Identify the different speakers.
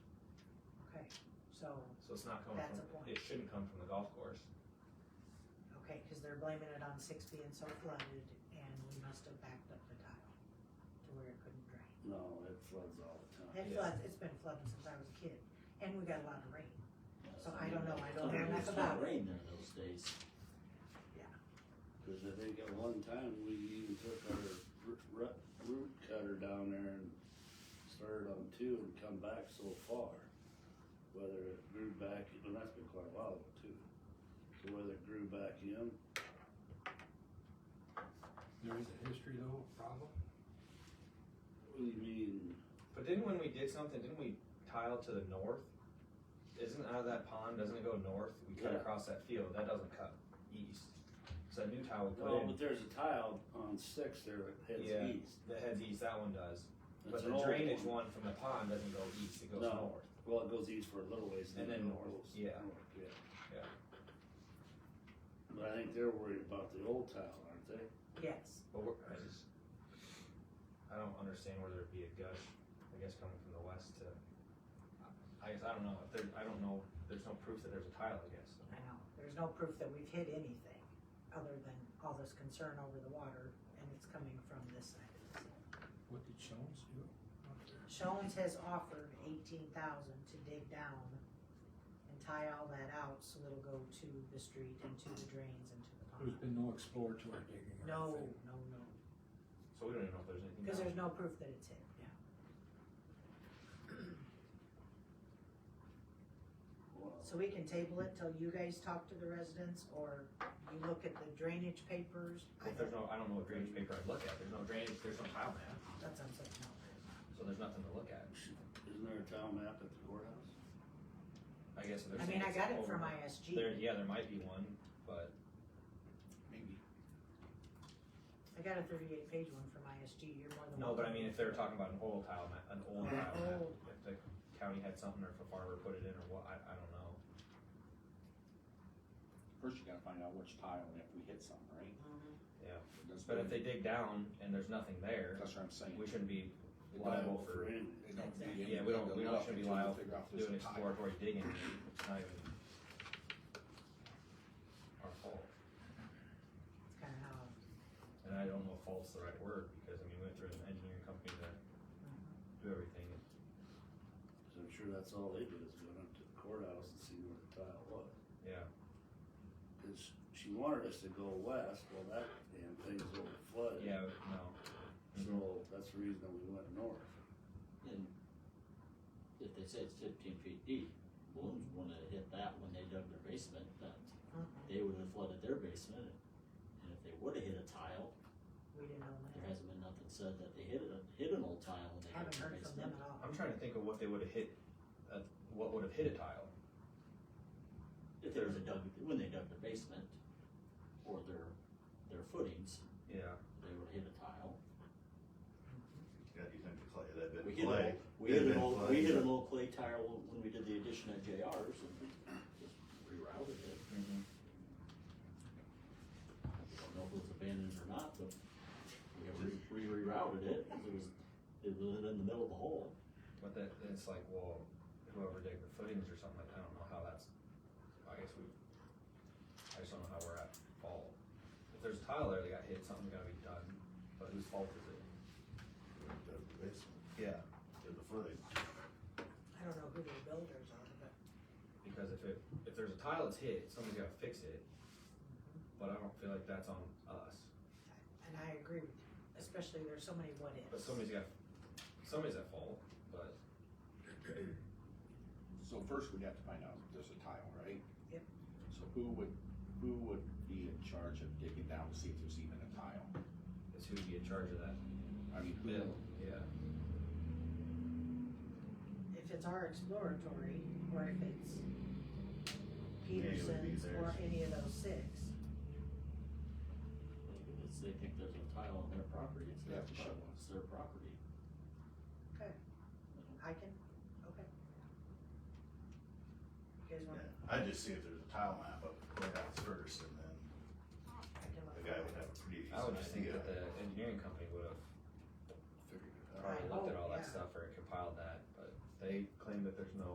Speaker 1: so,
Speaker 2: So it's not coming
Speaker 1: That's a
Speaker 2: from,
Speaker 1: point.
Speaker 2: it shouldn't come from the golf course.
Speaker 1: okay, cause they're blaming it on six being so flooded and we must have backed up the tile to where it couldn't drain.
Speaker 3: No, it floods all the time.
Speaker 1: It
Speaker 2: Yeah.
Speaker 1: floods, it's been flooding since I was a kid, and we got a lot of rain, so I don't know, I don't
Speaker 4: Some
Speaker 1: know
Speaker 4: of
Speaker 1: enough
Speaker 4: it's
Speaker 1: about
Speaker 4: not
Speaker 1: it.
Speaker 4: rain there those days.
Speaker 3: Cause I think at one time we even took our ru- ru- root cutter down there and started on two and come back so far. Whether it grew back, and that's been quite a while ago too. So whether it grew back in,
Speaker 5: There is a history though, problem?
Speaker 3: what do you mean?
Speaker 2: But didn't when we did something, didn't we tile to the north? Isn't out of that pond, doesn't it go north? We cut
Speaker 3: Yeah.
Speaker 2: across that field, that doesn't cut east. So that new tile we put
Speaker 3: Well,
Speaker 2: in,
Speaker 3: Oh, but there's a tile on six there that
Speaker 2: Yeah.
Speaker 3: heads east.
Speaker 2: that heads east, that one does.
Speaker 3: That's
Speaker 2: But
Speaker 3: an
Speaker 2: the
Speaker 3: old
Speaker 2: drainage one from the pond doesn't go east, it goes
Speaker 3: No.
Speaker 2: north.
Speaker 3: Well, it goes east for a little ways and then north.
Speaker 2: yeah.
Speaker 3: north, yeah.
Speaker 2: Yeah.
Speaker 3: But I think they're worried about the old tile, aren't they?
Speaker 1: Yes,
Speaker 2: But we're, I just, I don't understand where there'd be a gush, I guess, coming from the west to, I guess, I don't know, if there, I don't know, there's no proof that there's a tile, I guess.
Speaker 1: I know, there's no proof that we've hit anything, other than all this concern over the water, and it's coming from this side of the city.
Speaker 5: What did Jones do?
Speaker 1: Shones has offered eighteen thousand to dig down and tie all that out so it'll go to the street and to the drains and to the
Speaker 5: There's
Speaker 1: pond.
Speaker 5: been no exploratory digging or anything.
Speaker 1: No, no, no,
Speaker 2: So we don't even know if there's anything.
Speaker 1: because
Speaker 2: down
Speaker 1: there's no proof that it's hit, yeah.
Speaker 3: Well,
Speaker 1: So we can table it till you guys talk to the residents or you look at the drainage papers. I
Speaker 2: If there's
Speaker 1: don't-
Speaker 2: no, I don't know what drainage paper I'd look at, there's no drainage, there's no tile map,
Speaker 1: That's what I'm saying, no.
Speaker 2: so there's nothing to look at.
Speaker 3: Isn't there a town map at the courthouse?
Speaker 2: I guess if there's.
Speaker 1: I mean, I
Speaker 2: things
Speaker 1: got it
Speaker 2: over-
Speaker 1: from ISG.
Speaker 2: There, yeah, there might be one, but
Speaker 3: Maybe.
Speaker 1: I got a thirty-eight page one from ISG, you're more than.
Speaker 2: no, but
Speaker 1: welcome.
Speaker 2: I mean, if they were talking about an old tile map, an
Speaker 1: An
Speaker 2: old tile map,
Speaker 1: old.
Speaker 2: if the county had something or if a farmer put it in or what, I, I don't know.
Speaker 4: First you gotta find out which tile, if we hit something, right?
Speaker 1: Mhm.
Speaker 4: That's
Speaker 2: But
Speaker 4: what-
Speaker 2: if they dig down and there's nothing there,
Speaker 4: That's what I'm saying.
Speaker 2: we shouldn't be liable for
Speaker 3: anything.
Speaker 4: They don't do
Speaker 1: Exactly.
Speaker 2: Yeah, we don't-
Speaker 4: anything
Speaker 2: we
Speaker 4: to
Speaker 2: don't
Speaker 4: look
Speaker 2: should be
Speaker 4: until we
Speaker 2: liable
Speaker 4: figure out if there's
Speaker 2: doing
Speaker 4: a tile.
Speaker 2: exploratory digging, it's not even our fault.
Speaker 1: It's kinda how,
Speaker 2: And I don't know if fault's the right word, because I mean, we went through an engineering company to do everything,
Speaker 3: So I'm sure that's all they did is went up to the courthouse and see where the tile was.
Speaker 2: yeah.
Speaker 3: Cause she wanted us to go west, well, that damn thing's over flooded.
Speaker 2: Yeah, no.
Speaker 3: So that's the reason that we went north.
Speaker 4: And if they say it's fifteen feet deep, Bloom's wouldn't have hit that when they dug their basement, that,
Speaker 1: mhm.
Speaker 4: they would have flooded their basement. And if they would have hit a tile,
Speaker 1: we didn't know
Speaker 4: there
Speaker 1: that,
Speaker 4: hasn't been nothing said that they hit a, hit an old tile when they dug
Speaker 1: haven't
Speaker 4: their
Speaker 1: heard from them
Speaker 4: basement.
Speaker 1: at all.
Speaker 2: I'm trying to think of what they would have hit, uh, what would have hit a tile.
Speaker 4: If there was a dug, when they dug their basement, or their, their footings,
Speaker 2: Yeah.
Speaker 4: they would hit a tile.
Speaker 6: Yeah, you think the clay, that
Speaker 4: We
Speaker 6: bit
Speaker 4: hit, an
Speaker 6: clay.
Speaker 4: old, we
Speaker 6: that
Speaker 4: hit an
Speaker 6: bit
Speaker 4: old,
Speaker 6: clay.
Speaker 4: we hit an old clay tile when we did the addition at JR's and we just rerouted it. I don't know if it was abandoned or not, but we re- we rerouted it, 'cause it was, it was in the middle of the hole.
Speaker 2: But that, it's like, well, whoever did the footings or something, like, I don't know how that's, I guess we, I just don't know how we're at fault. If there's a tile there that got hit, something's gotta be done, but whose fault is it?
Speaker 6: The basement,
Speaker 2: Yeah.
Speaker 6: did the footing.
Speaker 1: I don't know who the builders are, but
Speaker 2: Because if it, if there's a tile that's hit, somebody's gotta fix it, but I don't feel like that's on us.
Speaker 1: And I agree with you, especially there's so many what
Speaker 2: But
Speaker 1: ifs.
Speaker 2: somebody's got, somebody's at fault, but
Speaker 7: So first we'd have to find out if there's a tile, right?
Speaker 1: Yep.
Speaker 7: So who would, who would be in charge of digging down to see if there's even a tile?
Speaker 2: it's who'd be in charge of that
Speaker 7: I mean, who,
Speaker 2: bit, yeah.
Speaker 1: If it's our exploratory, or if it's
Speaker 6: Yeah, it would be
Speaker 1: Peterson's, or
Speaker 6: theirs.
Speaker 1: any of those six,
Speaker 4: Like, if it's- they think there's a tile on their property, it's
Speaker 7: They
Speaker 4: their,
Speaker 7: have to show
Speaker 4: pro-
Speaker 7: us.
Speaker 4: it's their property.
Speaker 1: Okay. I can, okay. You guys want,
Speaker 6: I just see if there's a tile map up at the courthouse first, and then
Speaker 1: I can look.
Speaker 6: the guy would have a pretty
Speaker 2: I would
Speaker 6: decent
Speaker 2: just think
Speaker 6: idea.
Speaker 2: that the engineering company would have
Speaker 6: Figured it out.
Speaker 2: probably looked at all
Speaker 1: Oh,
Speaker 2: that
Speaker 1: yeah.
Speaker 2: stuff or compiled that, but they claim that there's no